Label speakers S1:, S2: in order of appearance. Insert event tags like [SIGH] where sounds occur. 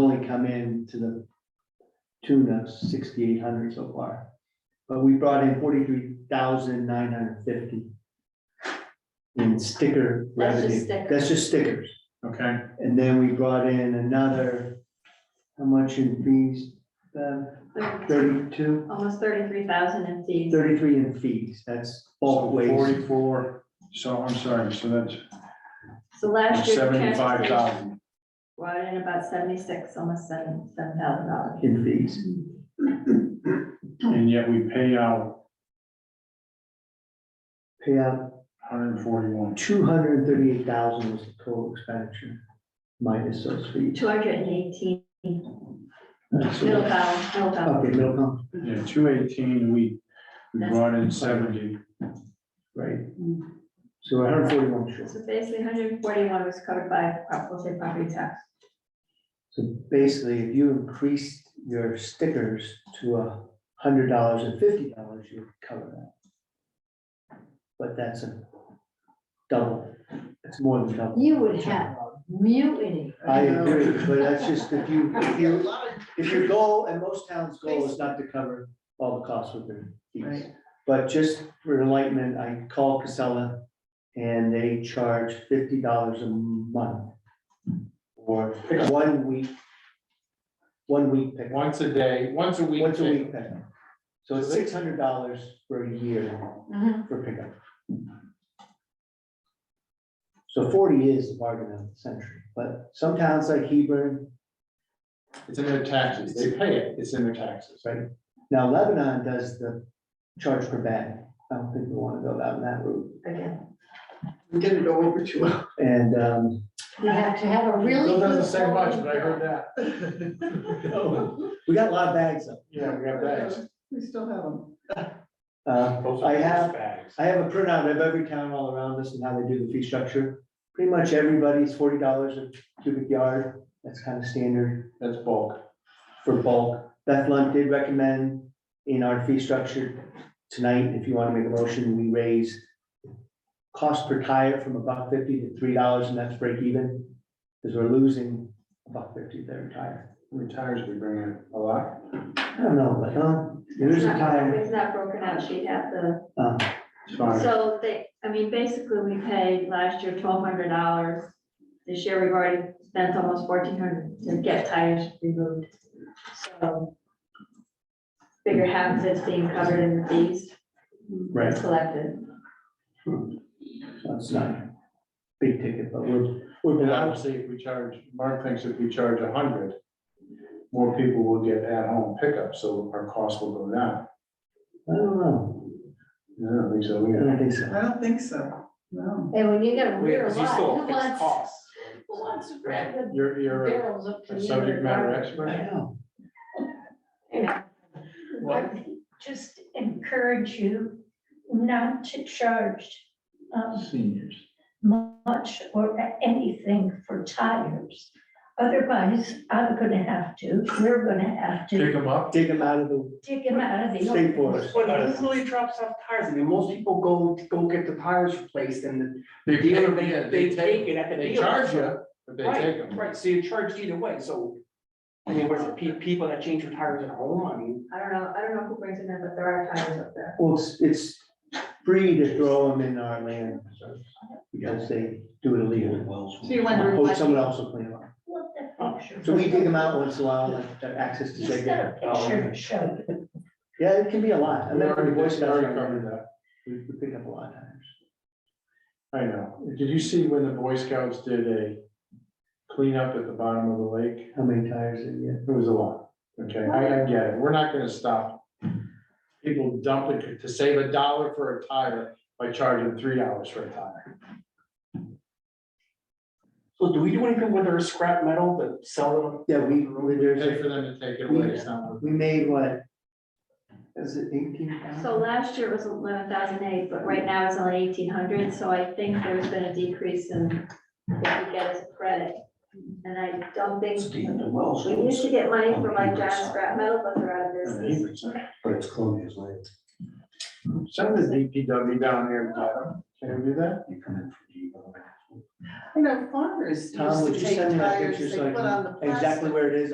S1: only come in to the tune of sixty-eight hundred so far. But we brought in forty-three thousand nine hundred fifty in sticker
S2: That's just
S1: revenue.
S2: stickers.
S1: That's just stickers.
S3: Okay,
S1: And then we brought in another, how much in fees? Uh, Thirty-two,
S2: Almost thirty-three thousand in fees.
S1: thirty-three in fees. That's
S3: so
S1: all ways.
S3: forty-four, so I'm sorry, so that's
S2: So last year. the transfer
S3: seventy-five
S2: station
S3: thousand.
S2: Brought in about seventy-six, almost seven, seven thousand dollars.
S1: in fees.
S3: And yet we pay out
S1: Pay out
S3: hundred and forty-one.
S1: two hundred and thirty-eight thousand was the total expenditure minus those fees.
S2: Two hundred and eighteen,
S1: That's
S2: middle
S1: what-
S2: balance, middle balance.
S1: Okay, middle column,
S3: Yeah, two eighteen, we, we brought in seventy.
S1: right. So hundred forty-one short.
S2: Mm. So basically, hundred and forty-one was covered by, prop- we'll say, property tax.
S1: So basically, if you increased your stickers to a hundred dollars and fifty dollars, you would cover that. But that's a double, it's more than double.
S4: You would have mutiny.
S1: I agree, but that's just if you, if you, if your goal, and most towns' goal is not to cover all the costs with their fees.
S4: Right.
S1: But just for enlightenment, I called Casella and they charge fifty dollars a month for one week, one week pickup.
S5: Once a day, once a week.
S1: Once a
S5: pick-
S1: week pickup. So it's six hundred dollars for a year
S4: Mhm.
S1: for pickup. So forty is the bargain of the century, but some towns like Hebron,
S5: It's in their taxes. They pay it. It's in their taxes.
S1: Right. now Lebanon does the charge per bag. I don't think we want to go down that route.
S2: Again,
S6: I'm gonna go over to. him.
S1: And, um,
S4: You have to have a really.
S5: Bill doesn't
S4: good
S5: say much,
S4: quality
S5: but I heard
S4: guy.
S5: that.
S1: [LAUGHS] we got a lot of bags up.
S5: Yeah, we have bags.
S6: We still have them.
S1: Uh,
S5: Those
S1: I
S5: are
S1: have,
S5: bags.
S1: I have a printout of every town all around us and how they do the fee structure. Pretty much everybody's forty dollars a cubic yard. That's kind of standard.
S5: That's bulk.
S1: for bulk. Beth Lunt did recommend in our fee structure tonight, if you want to make a motion, we raise cost per tire from a buck fifty to three dollars and that's break even, because we're losing a buck fifty there a tire.
S5: How many tires we bring in? A lot?
S1: I don't know, but, um, there's
S2: it's
S1: a
S2: not,
S1: tire.
S2: it's not broken out, she'd have the
S1: uh,
S5: It's fine.
S2: So they, I mean, basically, we paid last year twelve hundred dollars. This year, we've already spent almost fourteen hundred to get tires removed. So figure half of it's being covered in the fees
S1: Right,
S2: collected.
S1: so it's not a big ticket, but we're,
S5: And
S1: we're,
S5: obviously, if we charge, Mark thinks if we charge a hundred, more people will get at-home pickup, so our cost will go down.
S1: I don't know,
S5: Yeah, I don't think so,
S1: I
S5: yeah.
S1: don't think so.
S6: I don't think so, no.
S4: And when you get a rear
S5: Because you
S4: lot,
S5: still
S4: who
S5: fix
S4: wants,
S5: costs.
S4: who wants to grab the
S5: You're, you're a-
S4: barrels up to
S5: a
S4: the
S5: subject matter
S4: end?
S1: I
S5: expert.
S1: know,
S5: What?
S7: just encourage you not to charge um,
S3: Seniors.
S7: much or anything for tires. Otherwise, I'm gonna have to, we're gonna have
S5: Pick
S7: to
S5: them up.
S1: dig them out of the
S7: dig them out of the.
S1: state forest.
S6: Well, it literally drops off tires, I mean, most people go, go get the tires replaced and the dealer, they, they take it at the
S5: They
S6: dealer.
S5: charge
S6: so-
S5: you, but they
S6: Right,
S5: take them.
S6: Right, so you're charged either way, so, I mean, where's the pe- people that change their tires at home, I mean,
S2: I don't know, I don't know who brings them in, but there are tires up there.
S1: Well, it's, it's free to throw them in our land reserves because they do it illegally.
S4: So you're
S1: Hope someone else will clean them up.
S7: Look at the picture.
S1: So we dig them out once in a while, like, to access to
S7: He's got a
S1: their.
S7: picture to show you.
S1: Yeah, it can be a lot. I
S5: We
S1: remember the
S5: already
S1: Boy
S5: did- we
S1: Scouts,
S5: already covered that.
S1: we we pick up a lot of times.
S5: I know. Did you see when the Boy Scouts did a cleanup at the bottom of the lake?
S1: How many tires did you
S5: It was a lot. Okay, I, I get it. We're not gonna stop people dumping to save a dollar for a tire by charging three dollars for a tire.
S6: so do we do anything with our scrap metal that sell them?
S1: get? Yeah, we, we- there's,
S5: Pay
S1: a-
S5: for them to take it away. It's not worth
S1: we made what? Is it eighteen
S2: So
S1: thousand?
S2: last year it was eleven thousand eight, but right now it's only eighteen hundred, so I think there's been a decrease in what we get as a credit. And I don't think,
S6: well,
S2: we used to get money for like John scrap metal, but they're out of
S5: it.
S2: business.
S5: But it's Columbia's land. Send the DPW down here and get them. Can we do that? You come in for
S6: You know, farmers
S1: Tom, would you send me that picture so I can, exactly where it is